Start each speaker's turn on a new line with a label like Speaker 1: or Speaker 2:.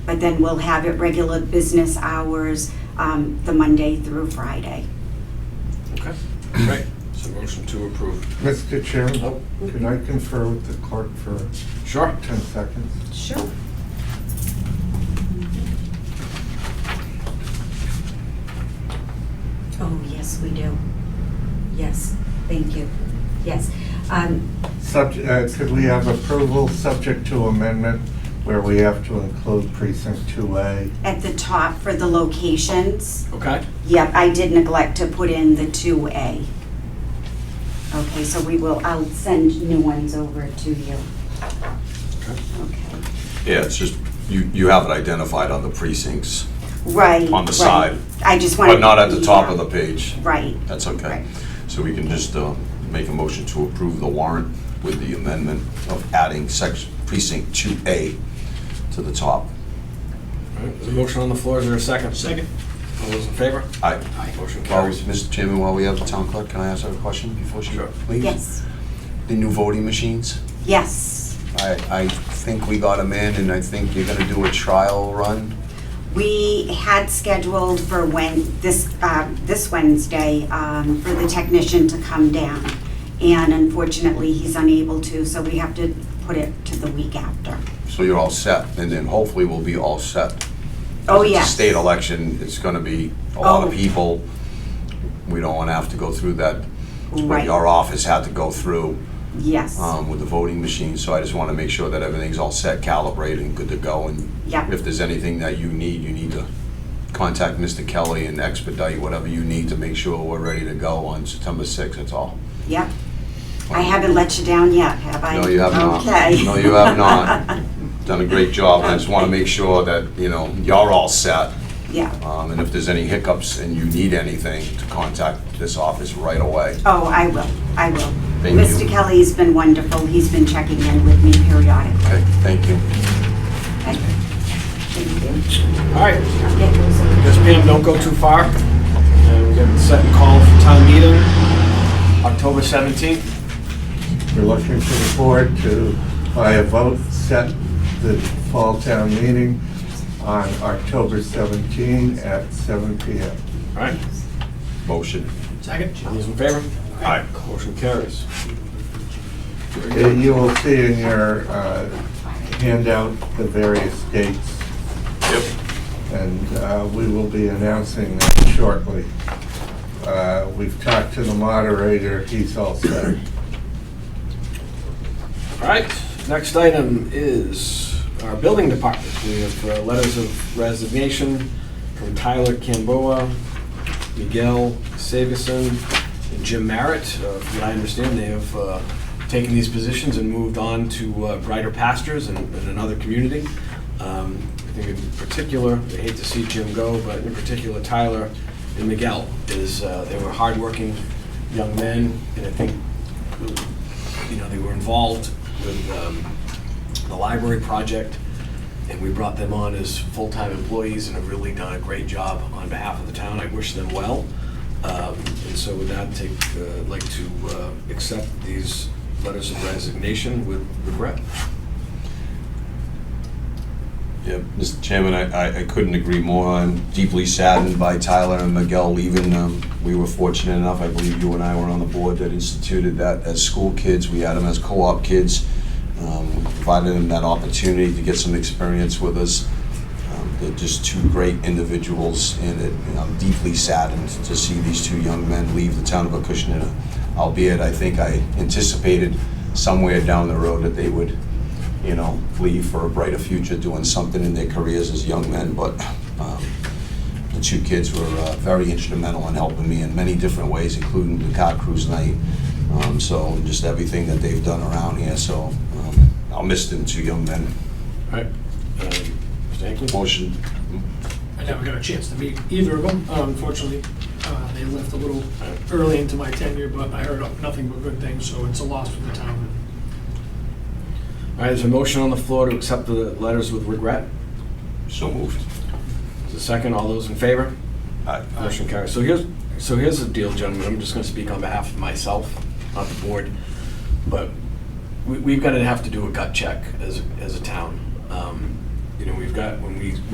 Speaker 1: but then we'll have it regular business hours, um, the Monday through Friday.
Speaker 2: Okay, great. So motion to approve.
Speaker 3: Mr. Chairman,
Speaker 2: Nope.
Speaker 3: can I confer with the clerk for
Speaker 2: Sure.
Speaker 3: 10 seconds?
Speaker 1: Sure. Oh, yes, we do. Yes, thank you. Yes. Um,
Speaker 3: Subject, uh, could we have approval subject to amendment where we have to include precinct 2A?
Speaker 1: At the top for the locations,
Speaker 2: Okay.
Speaker 1: yep, I did neglect to put in the 2A. Okay, so we will, I'll send new ones over to you.
Speaker 2: Okay.
Speaker 1: Okay.
Speaker 4: Yeah, it's just, you, you have it identified on the precincts,
Speaker 1: Right.
Speaker 4: On
Speaker 1: right.
Speaker 4: the side,
Speaker 1: I just wanted.
Speaker 4: but not at the top of the page.
Speaker 1: Right.
Speaker 4: That's
Speaker 1: Right.
Speaker 4: okay. So we can just uh, make a motion to approve the warrant with the amendment of adding section, precinct 2A to the top.
Speaker 2: All right, There's a motion on the floor. Is there a second? Second. All those in favor?
Speaker 4: Aye.
Speaker 2: Motion
Speaker 4: While we-
Speaker 2: carries.
Speaker 4: Mr. Chairman, while we have the town clerk, can I ask her a question before she
Speaker 2: Sure.
Speaker 4: leaves?
Speaker 1: Yes,
Speaker 4: The new voting machines?
Speaker 1: yes.
Speaker 4: I, I think we got them in, and I think you're gonna do a trial run.
Speaker 1: We had scheduled for when, this, uh, this Wednesday, um, for the technician to come down. And unfortunately, he's unable to, so we have to put it to the week after.
Speaker 4: So you're all set, and then hopefully we'll be all set.
Speaker 1: Oh,
Speaker 4: It's a
Speaker 1: yes.
Speaker 4: State election, it's gonna be a lot
Speaker 1: Oh.
Speaker 4: of people. We don't wanna have to go through that. What
Speaker 1: Right.
Speaker 4: your office had to go through
Speaker 1: Yes,
Speaker 4: um, with the voting machine, so I just wanna make sure that everything's all set, calibrated, and good to go. And
Speaker 1: yep,
Speaker 4: if there's anything that you need, you need to contact Mr. Kelly and expedite whatever you need to make sure we're ready to go on September sixth, that's all.
Speaker 1: yep. I haven't let you down yet, have I?
Speaker 4: No, you have not.
Speaker 1: Okay.
Speaker 4: No, you have not. Done a great job, I just wanna make sure that, you know, you're all set.
Speaker 1: Yeah.
Speaker 4: Um, and if there's any hiccups and you need anything, to contact this office right away.
Speaker 1: Oh, I will, I will.
Speaker 4: Thank you.
Speaker 1: Mr. Kelly's been wonderful, he's been checking in with me periodically.
Speaker 4: Okay, thank you.
Speaker 1: Okay. Thank you.
Speaker 2: All right.
Speaker 1: I'll get those over.
Speaker 2: Yes, ma'am, don't go too far. And we got a set and call for town meeting, October 17th.
Speaker 3: We're looking for the board to, by a vote, set the fall town meeting on October 17 at 7 PM.
Speaker 2: All right.
Speaker 4: Motion.
Speaker 2: Second. All those in favor?
Speaker 4: Aye.
Speaker 2: Motion carries.
Speaker 3: Uh, You will see in your uh, handout the various dates,
Speaker 4: Yep.
Speaker 3: and uh, we will be announcing that shortly. Uh, We've talked to the moderator, he's all set.
Speaker 2: All right, next item is our building department. We have uh, letters of resignation from Tyler Camboa, Miguel Sagerson, and Jim Merritt. Uh, From what I understand, they have uh, taken these positions and moved on to uh, brighter pastures in in another community. Um, I think in particular, I hate to see Jim go, but in particular Tyler and Miguel is, uh, they were hardworking young men, and I think you know, they were involved with um, the library project, and we brought them on as full-time employees and have really done a great job on behalf of the town. I wish them well. Um, And so with that, take, uh, I'd like to uh, accept these letters of resignation with regret.
Speaker 4: Yeah, Mr. Chairman, I, I- I couldn't agree more. I'm deeply saddened by Tyler and Miguel leaving. Um, We were fortunate enough, I believe you and I were on the board that instituted that as school kids. We had them as co-op kids. Um, We Provided them that opportunity to get some experience with us. Um, They're just two great individuals, and it- and I'm deeply saddened to see these two young men leave the town of Acushnet. Albeit, I think I anticipated somewhere down the road that they would you know, leave for a brighter future, doing something in their careers as young men, but um, the two kids were uh, very instrumental in helping me in many different ways, including the car cruise night, um, so, and just everything that they've done around here, so um, I'll miss them, two young men.
Speaker 2: All right. Um, Mr. Hinckley?
Speaker 4: Motion,
Speaker 5: I never got a chance to meet either of them, uh, unfortunately. Uh, They left a little early into my tenure, but I heard nothing but good things, so it's a loss for the town.
Speaker 2: All right, there's a motion on the floor to accept the letters with regret.
Speaker 4: so moved.
Speaker 2: Is there a second? All those in favor?
Speaker 4: Aye.
Speaker 2: Motion carries. So here's, so here's the deal, gentlemen, I'm just gonna speak on behalf of myself, not the board, but we, we've gotta have to do a gut check as, as a town. Um, you know, we've got, when we